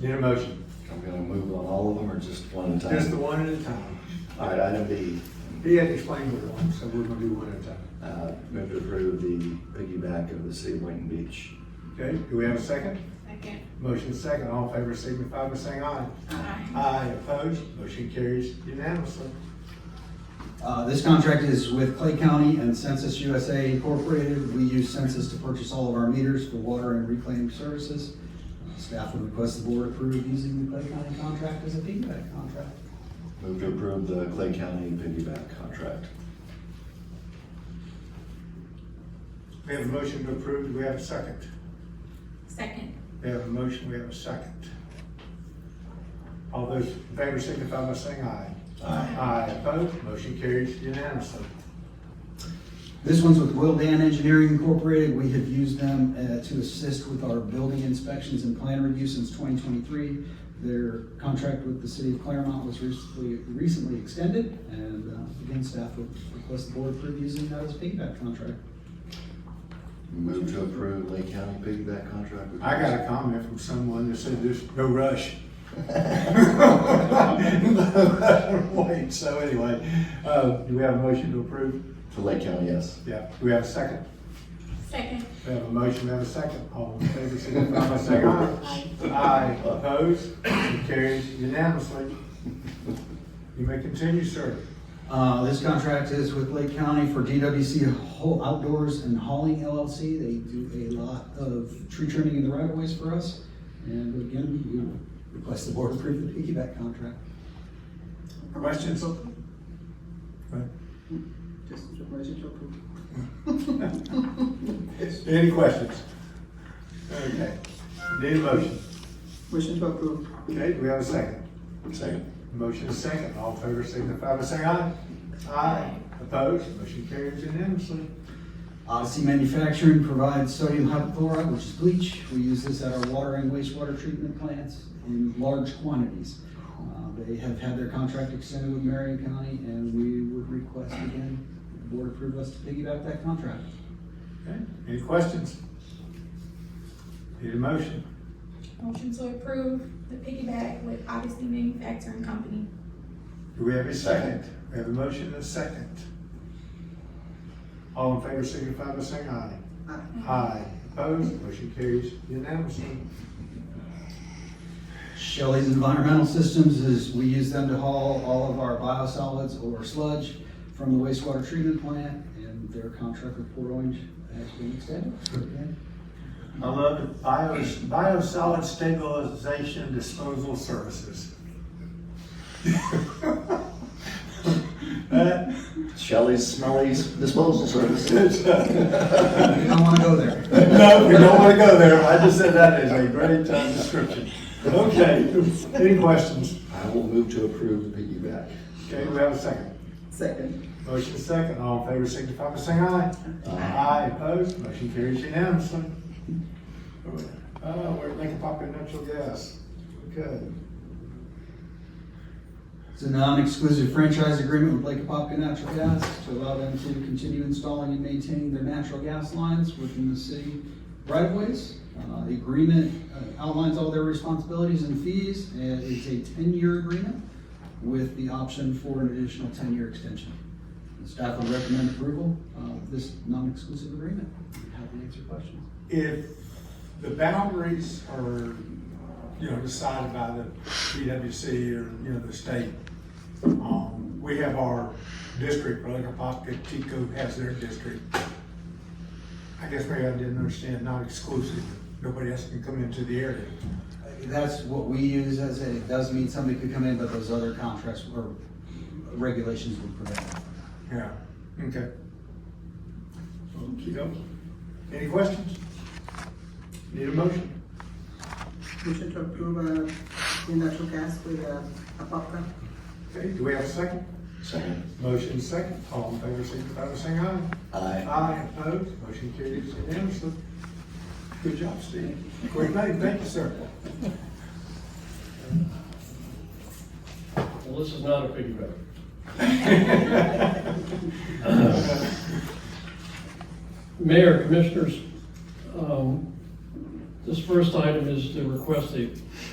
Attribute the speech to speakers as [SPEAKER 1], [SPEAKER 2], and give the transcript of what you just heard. [SPEAKER 1] Need a motion?
[SPEAKER 2] I'm gonna move on all of them or just one at a
[SPEAKER 1] Just the
[SPEAKER 2] time?
[SPEAKER 1] one at a time.
[SPEAKER 2] All right, item B,
[SPEAKER 1] He had explained the one, so we're gonna do one at a time.
[SPEAKER 2] uh, move to approve the piggyback of the city of Boynton Beach.
[SPEAKER 1] Okay, do we have a second?
[SPEAKER 3] Second.
[SPEAKER 1] Motion second, all in favor signify by saying aye.
[SPEAKER 3] Aye.
[SPEAKER 1] Aye, opposed, motion carries unanimously.
[SPEAKER 4] Uh, This contract is with Clay County and Census USA Incorporated. We use Census to purchase all of our meters for water and reclaim services. Uh, Staff would request the board approve using the Clay County contract as a feedback contract.
[SPEAKER 2] Move to approve the Clay County piggyback contract.
[SPEAKER 1] We have a motion to approve, do we have a second?
[SPEAKER 3] Second.
[SPEAKER 1] We have a motion, we have a second. All those in favor signify by saying aye.
[SPEAKER 2] Aye.
[SPEAKER 1] Aye, opposed, motion carries unanimously.
[SPEAKER 4] This one's with Will Dan Engineering Incorporated. We have used them uh, to assist with our building inspections and plan review since 2023. Their contract with the city of Claremont was recently, recently extended, and uh, again, staff would request the board approve using that as a feedback contract.
[SPEAKER 2] Move to approve Lake County piggyback contract. with-
[SPEAKER 1] I got a comment from someone that said there's no rush. Wait, so anyway, uh, do we have a motion to approve?
[SPEAKER 2] For Lake County, yes.
[SPEAKER 1] Yeah, do we have a second?
[SPEAKER 3] Second.
[SPEAKER 1] We have a motion, we have a second. All in favor, signify by saying aye. Aye, opposed, motion carries unanimously. You may continue, sir.
[SPEAKER 4] Uh, This contract is with Lake County for DWC Ho- Outdoors and Hauling LLC. They do a lot of tree trimming in the right of ways for us. And again, we request the board approve the piggyback contract.
[SPEAKER 1] Questions?
[SPEAKER 5] Just a motion to approve.
[SPEAKER 1] Any questions? Okay, need a motion.
[SPEAKER 5] Motion to approve.
[SPEAKER 1] Okay, do we have a second?
[SPEAKER 2] Second.
[SPEAKER 1] Motion is second. All in favor, signify by saying aye. Aye, opposed, motion carries unanimously.
[SPEAKER 4] Odyssey Manufacturing provides sodium hypochlorite, which is bleach. We use this at our water and wastewater treatment plants in large quantities. Uh, They have had their contract extended with Marion County, and we would request again, the board approve us to piggyback that contract.
[SPEAKER 1] Okay, any questions? Need a motion?
[SPEAKER 3] Motion to approve the piggyback with Odyssey Manufacturing Company.
[SPEAKER 1] Do we have a second? We have a motion and a second. All in favor signify by saying aye. Aye. Opposed, motion carries unanimously.
[SPEAKER 4] Shelley's Environmental Systems is, we use them to haul all of our biosolids or sludge from the wastewater treatment plant, and their contract with Port Orange has been extended. Again,
[SPEAKER 1] I love it. Bio, biosolid stabilization disposal services. That-
[SPEAKER 2] Shelley's Smelly's disposal services.
[SPEAKER 4] We don't want to go there.
[SPEAKER 1] No, we don't want to go there. I just said that is a great uh, description. Okay, any questions?
[SPEAKER 2] I will move to approve the piggyback.
[SPEAKER 1] Okay, we have a second.
[SPEAKER 5] Second.
[SPEAKER 1] Motion second, all in favor signify by saying aye. Aye, opposed, motion carries unanimously. Uh, we're Lincoln Popular Natural Gas. Okay,
[SPEAKER 4] It's a non-exclusive franchise agreement with Lake Apopka Natural Gas to allow them to continue installing and maintaining their natural gas lines within the city right-of-ways. Uh, The agreement uh, outlines all their responsibilities and fees, and it's a ten-year agreement with the option for an additional ten-year extension. The Staff would recommend approval of this non-exclusive agreement. I'm Happy to answer questions.
[SPEAKER 1] if the boundaries are, you know, decided by the PWC or, you know, the state, um, we have our district, Lincoln Popular, Tico has their district. I guess maybe I didn't understand, not exclusive, nobody else can come into the area.
[SPEAKER 4] Uh, That's what we use as a, it does mean somebody could come in, but those other contracts or regulations would prevent that.
[SPEAKER 1] Yeah, okay. Okey-dokey. Any questions? Need a motion?
[SPEAKER 5] Motion to approve, uh, the natural gas with, uh, Apopka.
[SPEAKER 1] Okay, do we have a second?
[SPEAKER 2] Second.
[SPEAKER 1] Motion second, all in favor, signify by saying aye.
[SPEAKER 2] Aye.
[SPEAKER 1] Aye, opposed, motion carries unanimously. Good job, Steve. Great night, thank you, sir.
[SPEAKER 6] Well, this is not a piggyback. Mayor, Commissioners, um, this first item is to request a